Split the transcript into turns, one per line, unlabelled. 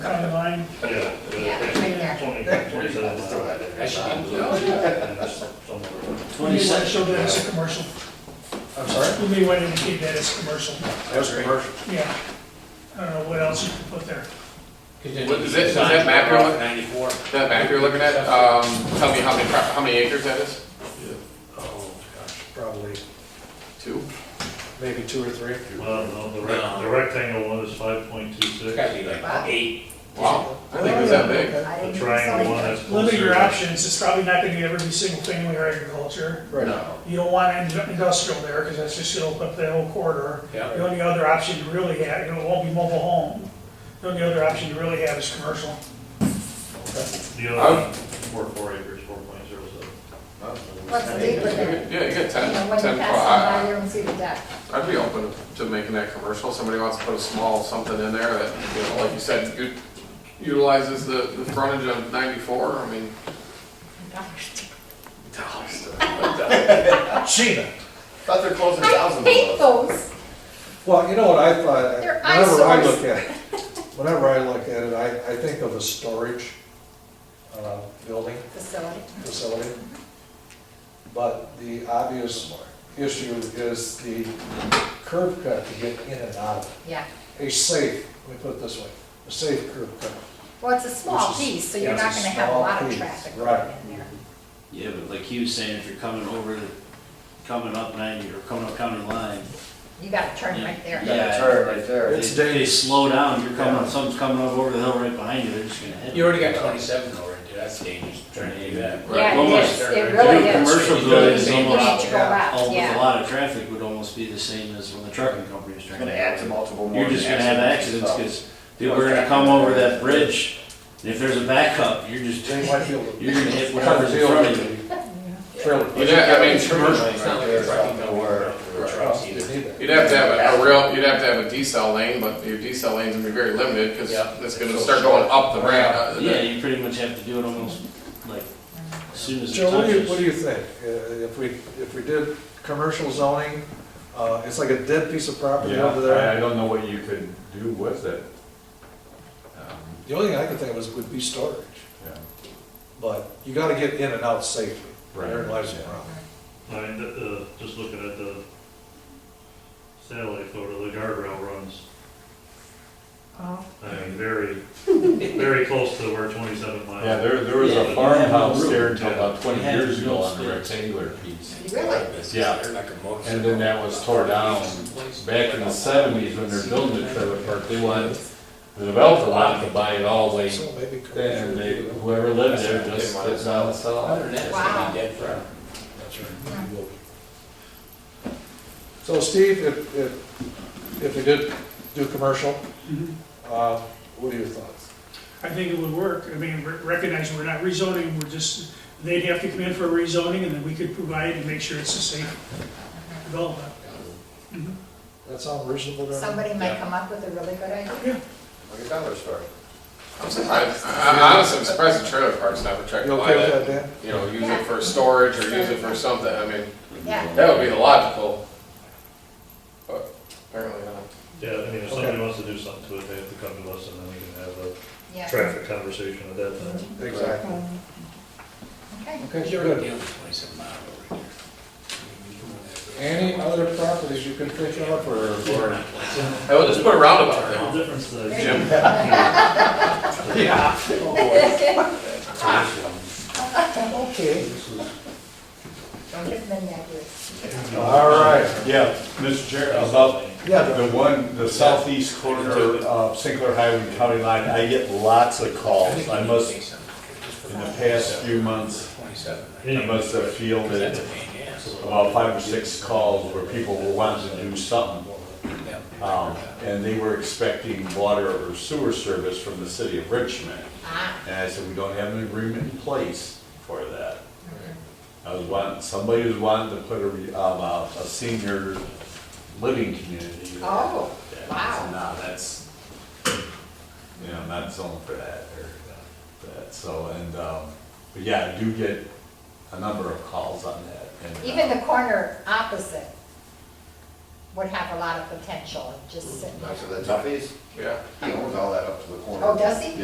sign.
Twenty-six.
Show that as a commercial.
I'm sorry?
We may want to indicate that as commercial,
That was commercial.
yeah. I don't know what else you can put there.
What is it- is that map you're looking-
Ninety-four.
That map you're looking at, um, tell me how many, pro- how many acres that is?
Oh, gosh, probably,
Two?
maybe two or three.
Well, no, the rec- the rectangle one is five point two
It's
six,
gotta be like eight.
Wow, I think it was that big.
the triangle one that's.
Limit your
closer.
options, it's probably not gonna be every single family or agriculture.
Right.
You don't want ind- industrial there, because that's just gonna open up that whole corridor.
Yeah.
The only other option you really have, you know, it won't be mobile home, the only other option you really have is commercial.
The other one, four, four acres, four point zero
What's the
seven.
big with it?
Yeah, you get
You know,
ten,
when you
ten,
pass them by,
I,
you don't see the deck.
I'd be open to making that commercial, somebody wants to put a small something in there that, you know, like you said, u- utilizes the, the frontage of ninety-four, I mean. Dollars.
Sheena.
Thought they're closing
I
thousands
hate
of those.
those.
Well, you know what I thought,
They're
whenever I
eyesores.
look at, it, whenever I look at it, I, I think of a storage, uh, building
Facility.
facility. But the obvious issue is the curb cut to get in and out of
Yeah.
it. A safe, let me put it this way, a safe curb cut.
Well, it's a small
Which is-
piece, so
yeah,
you're not
it's a
gonna have a
small
lot of
piece,
traffic
right.
going in there.
Yeah, but like he was saying, if you're coming over the, coming up ninety or coming up county line,
You gotta turn
Yeah.
right there.
Yeah.
That's her right there.
they, they slow down, you're coming, something's coming up over the hill right behind you, they're just gonna hit.
You already got twenty-seven already, dude, that's dangerous, trying to do that.
Right.
Yeah, it
Almost
is,
there.
it
To do
really is.
commercial though
You know,
is
you
You need
almost,
to go
all-
out,
with a
yeah.
lot of traffic would almost be the same as when the trucking company is
It's
trying
gonna
to.
add to multiple more.
You're just gonna have accidents, cause people are gonna
Okay.
come over that bridge, and if there's a backup, you're just,
Jay Whitefield.
you're gonna hit whatever's in front of you.
Trailer.
Yeah, I mean, commercial,
It's not like a trucking company, or
Right.
trucks either.
you'd have to have a- a real, you'd have to have a decel lane, but your decel lane's gonna be very limited, cause
Yeah.
it's gonna start going up the ramp. uh, the-
Yeah, you pretty much have to do it almost like as soon as it
Joe, what do you, what do
touches.
you think? Uh, If we, if we did commercial zoning, uh, it's like a dead piece of property
Yeah,
over there.
I I don't know what you could do with it. Um,
The only thing I could think of is would be storage,
yeah.
but you gotta get in and out safely. There
Right.
lies the problem.
I mean, the, uh, just looking at the satellite photo, the guardrail runs,
Oh.
I mean, very, very close to where twenty-seven miles.
Yeah, there, there was
Yeah, you
a
have
farmhouse
no
there
room.
until about twenty
You have
years ago
no
on a
space.
rectangular piece.
Really?
Yeah. And then that was tore down back in the seventies when they're building the trailer park, they wanted, the developer wanted to buy it all, they,
So maybe.
and
commercial
they,
would be-
whoever lived there just did not sell
Other
it.
than that, it's
Wow.
gonna be dead forever.
So Steve, if, if, if we did do commercial, uh, what are your thoughts?
I think it would work, I mean, re- recognizing we're not rezoning, we're just, they'd have to come in for a rezoning, and then we could provide and make sure it's a safe development.
That sound reasonable to everyone?
Somebody might come up with a really good idea.
Like a dollar store.
I'm surprised, I- I'm honestly surprised the trailer park's not
You
protected by
okay with
that.
that, Dan?
You know, use it for storage or use it for something, I mean,
Yeah.
that would be the logical. But apparently not.
Yeah, I mean, if somebody wants to do something to it, they have to come to us and then we can have a
Yeah.
traffic conversation at that time.
Exactly.
Okay.
Okay,
You're already
good.
dealing with twenty-seven miles over here.
Any other properties you can think of or? or-
Hey, we'll just put a roundabout there.
The difference is-
Jim?
Okay.
Don't give them any ideas.
All right. Yeah, Mr. Chair, about
Yeah,
the one, the southeast corner of Sinclair Highway and County Line, I get lots of calls. I must, in the past few months,
Twenty-seven.
I must have fielded
That's a pain, in the ass.
about five or six calls where people were wanting to do something. Um, And they were expecting water or sewer service from the city of Richmond.
Ah,
And I said, we don't have an agreement in place for that. I was wanting, somebody was wanting to put a, re- um, a a senior living community. there.
Oh,
Yeah,
wow.
so Now, that's, you know, not zoned for that or that, so, and, um, but yeah, I do get a number of calls on that. and, uh,
even the corner opposite would have a lot of potential, just sitting there.
That's where the Duffy's,
Yeah.
he owns all that up to the corner.
Oh, does he?